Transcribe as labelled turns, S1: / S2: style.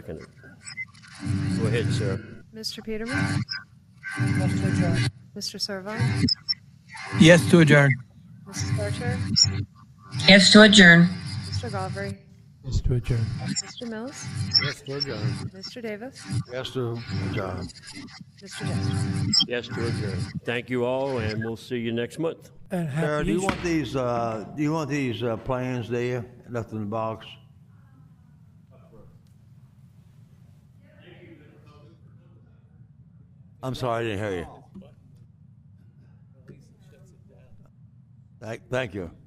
S1: Second. Go ahead, sir.
S2: Mr. Peterman?
S3: Motion to adjourn.
S2: Mr. Servon?
S4: Yes to adjourn.
S2: Mrs. Fletcher?
S5: Yes, to adjourn.
S2: Mr. Galbraith?
S4: Yes to adjourn.
S2: Mr. Mills?
S6: Yes, to adjourn.
S2: Mr. Davis?
S6: Yes, to adjourn.
S2: Mr. Dexter?
S1: Yes to adjourn. Thank you all, and we'll see you next month.
S3: And
S6: Sarah,
S3: happy
S6: do you
S3: Easter.
S6: want these, uh, do you want these, uh, plans there, left in the box? I'm sorry, I didn't hear you. Thank, thank you.